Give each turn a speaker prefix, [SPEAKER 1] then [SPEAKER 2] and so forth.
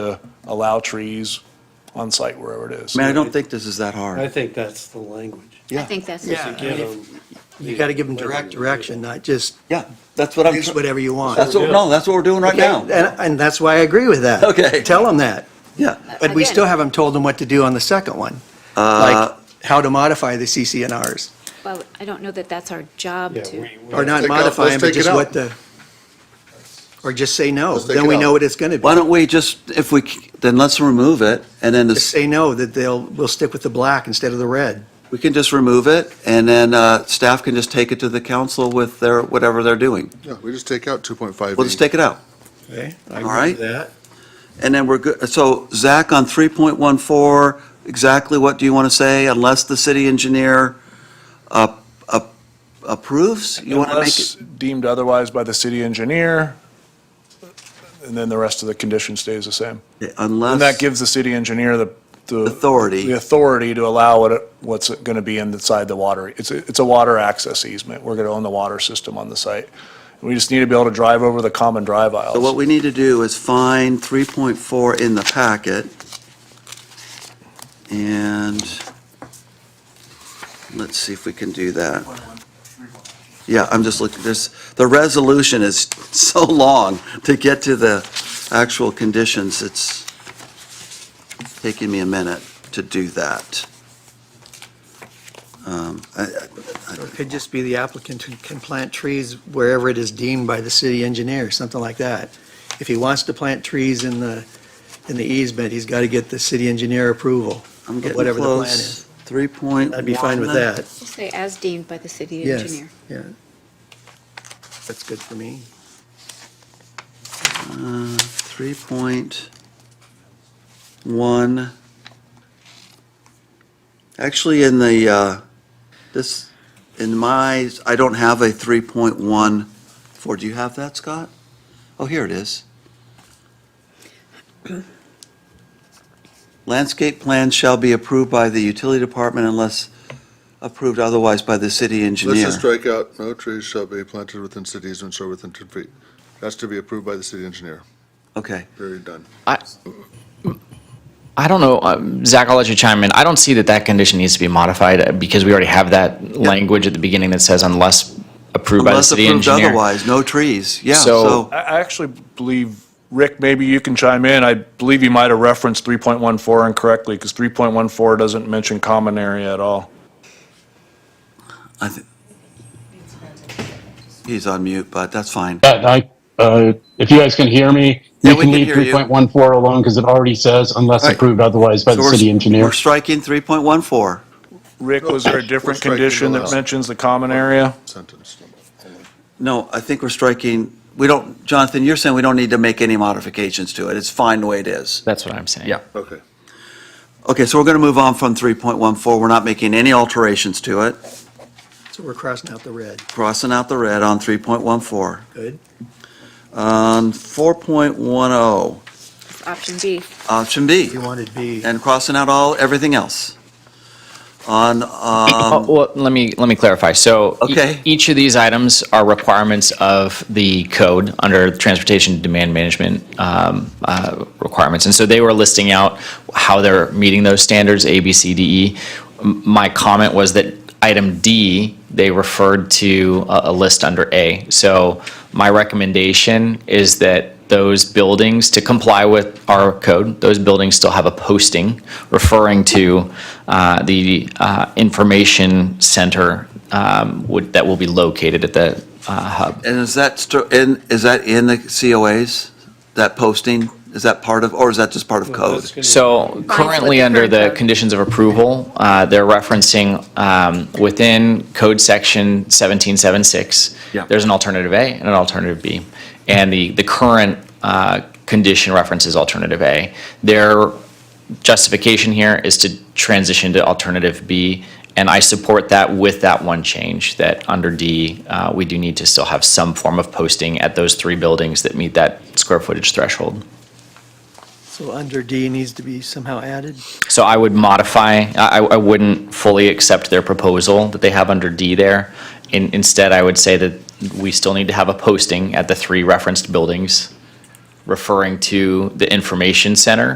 [SPEAKER 1] to allow trees on site wherever it is.
[SPEAKER 2] I mean, I don't think this is that
[SPEAKER 3] I
[SPEAKER 2] hard.
[SPEAKER 3] think that's the language.
[SPEAKER 2] Yeah.
[SPEAKER 4] I think that's.
[SPEAKER 5] Yeah, I mean, if- you got to give them direct direction, not just
[SPEAKER 2] Yeah, that's what I'm.
[SPEAKER 5] use whatever you want.
[SPEAKER 2] That's what, no, that's what we're doing right
[SPEAKER 5] Okay,
[SPEAKER 2] now.
[SPEAKER 5] And, and that's why I agree with that.
[SPEAKER 2] Okay.
[SPEAKER 5] Tell them that.
[SPEAKER 2] Yeah.
[SPEAKER 5] But we
[SPEAKER 4] Again.
[SPEAKER 5] still haven't told them what to do on the second one.
[SPEAKER 2] Uh,
[SPEAKER 5] Like, how to modify the CCNRs,
[SPEAKER 4] Well, I don't know that that's our job
[SPEAKER 3] Yeah,
[SPEAKER 4] to.
[SPEAKER 3] we- we-
[SPEAKER 5] or not
[SPEAKER 6] Take it out,
[SPEAKER 5] modify them,
[SPEAKER 6] let's
[SPEAKER 5] but
[SPEAKER 6] take it
[SPEAKER 5] just
[SPEAKER 6] out.
[SPEAKER 5] what the, or just say no.
[SPEAKER 6] Let's take
[SPEAKER 5] Then
[SPEAKER 6] it
[SPEAKER 5] we know
[SPEAKER 6] out.
[SPEAKER 5] what it's going to be.
[SPEAKER 2] Why don't we just, if we, c- then let's remove it and then
[SPEAKER 5] Just
[SPEAKER 2] this-
[SPEAKER 5] say no, that they'll, we'll stick with the black instead of the red.
[SPEAKER 2] we can just remove it and then, uh, staff can just take it to the council with their, whatever they're doing.
[SPEAKER 6] Yeah, we just take out 2.5.
[SPEAKER 2] We'll just take it out.
[SPEAKER 5] Okay.
[SPEAKER 2] All right. And then we're good, so Zach, on 3.14, exactly what do you want to say, unless the city engineer uh, uh, approves? You want to make
[SPEAKER 1] Unless
[SPEAKER 2] it,
[SPEAKER 1] deemed otherwise by the city engineer, and then the rest of the condition stays the same. And that
[SPEAKER 2] unless,
[SPEAKER 1] gives the city engineer the, the.
[SPEAKER 2] Authority.
[SPEAKER 1] The authority to allow what, what's going to be inside the water. It's, a- it's a water access easement. We're going to own the water system on the site. We just need to be able to drive over the common drive aisles.
[SPEAKER 2] so what we need to do is find 3.4 in the packet, and let's see if we can do that. Yeah, I'm just looking, this, the resolution is so long to get to the actual conditions, it's taking me a minute to do that. Um, I- I- I
[SPEAKER 5] Or
[SPEAKER 2] don't-
[SPEAKER 5] it could just be the applicant who can plant trees wherever it is deemed by the city engineer, something like that. If he wants to plant trees in the, in the easement, he's got to get the city engineer approval.
[SPEAKER 2] I'm getting
[SPEAKER 5] whatever the plan
[SPEAKER 2] close. 3.1.
[SPEAKER 5] I'd be fine with that.
[SPEAKER 4] Just say as deemed by the city
[SPEAKER 5] Yes,
[SPEAKER 4] engineer.
[SPEAKER 5] yeah. That's good for me.
[SPEAKER 2] Uh, 3.1. Actually, in the, uh, this, in my, I don't have a 3.1 for, do you have that, Scott? Oh, here it is. Landscape plans shall be approved by the utility department unless approved otherwise by the city engineer.
[SPEAKER 6] Let's just strike out, no trees shall be planted within city easements or within 10 feet. That's to be approved by the city engineer.
[SPEAKER 2] Okay.
[SPEAKER 6] Period, done.
[SPEAKER 7] I don't know, um, Zach, I'll let you chime in. I don't see that that condition needs to be modified uh, because we already have that language at the beginning that says unless approved by the
[SPEAKER 2] Unless
[SPEAKER 7] city
[SPEAKER 2] approved
[SPEAKER 7] engineer.
[SPEAKER 2] otherwise, no trees. Yeah,
[SPEAKER 7] So-
[SPEAKER 2] so.
[SPEAKER 1] I, I actually believe, Rick, maybe you can chime in. I believe you might have referenced 3.14 incorrectly because 3.14 doesn't mention common area at all.
[SPEAKER 2] I thi- He's on mute, but that's fine.
[SPEAKER 8] Yeah, I, uh, if you guys can hear me, you
[SPEAKER 2] Yeah, we
[SPEAKER 8] can
[SPEAKER 2] can
[SPEAKER 8] leave
[SPEAKER 2] hear you.
[SPEAKER 8] 3.14 alone because it already says unless
[SPEAKER 2] Right.
[SPEAKER 8] approved otherwise by
[SPEAKER 2] So
[SPEAKER 8] the
[SPEAKER 2] we're-
[SPEAKER 8] city engineer.
[SPEAKER 2] We're striking 3.14.
[SPEAKER 1] Rick, was there a different
[SPEAKER 6] We're striking
[SPEAKER 1] condition
[SPEAKER 6] the
[SPEAKER 1] that
[SPEAKER 6] last-
[SPEAKER 1] mentions the common area?
[SPEAKER 6] Sentence.
[SPEAKER 2] No, I think we're striking, we don't, Jonathan, you're saying we don't need to make any modifications to it. It's fine the way it is.
[SPEAKER 7] That's what I'm saying.
[SPEAKER 2] Yeah.
[SPEAKER 6] Okay.
[SPEAKER 2] Okay, so we're going to move on from 3.14. We're not making any alterations to it.
[SPEAKER 5] So we're crossing out the red.
[SPEAKER 2] Crossing out the red on 3.14.
[SPEAKER 5] Good.
[SPEAKER 2] On 4.10,
[SPEAKER 4] It's Option B.
[SPEAKER 2] oh, option B,
[SPEAKER 5] You wanted B.
[SPEAKER 2] and crossing out all, everything else. On,
[SPEAKER 7] Oh,
[SPEAKER 2] um,
[SPEAKER 7] Well, let me, let me clarify. So e-
[SPEAKER 2] Okay.
[SPEAKER 7] each of these items are requirements of the code under the transportation demand management um, uh, requirements. And so they were listing out how they're meeting those standards, A, B, C, D, E. M- My comment was that item D, they referred to a a list under A. So my recommendation is that those buildings to comply with our code, those buildings still have a posting referring to uh, the uh, information center um, would- that will be located at the uh, hub.
[SPEAKER 2] And is that, str- in is that in the COAs, that posting? Is that part of, or is that just part of code?
[SPEAKER 7] So currently,
[SPEAKER 4] the
[SPEAKER 7] under
[SPEAKER 4] current
[SPEAKER 7] the
[SPEAKER 4] code.
[SPEAKER 7] conditions of approval, uh, they're referencing um, within code section 1776,
[SPEAKER 2] Yeah.
[SPEAKER 7] there's an alternative A and an alternative B. And the, the current uh, condition references alternative A. Their justification here is to transition to alternative B, and I support that with that one change, that under D, uh, we do need to still have some form of posting at those three buildings that meet that square footage threshold.
[SPEAKER 5] So under D needs to be somehow added.
[SPEAKER 7] So I would modify, I, I wouldn't fully accept their proposal that they have under D there. In, instead, I would say that we still need to have a posting at the three referenced buildings referring to the information center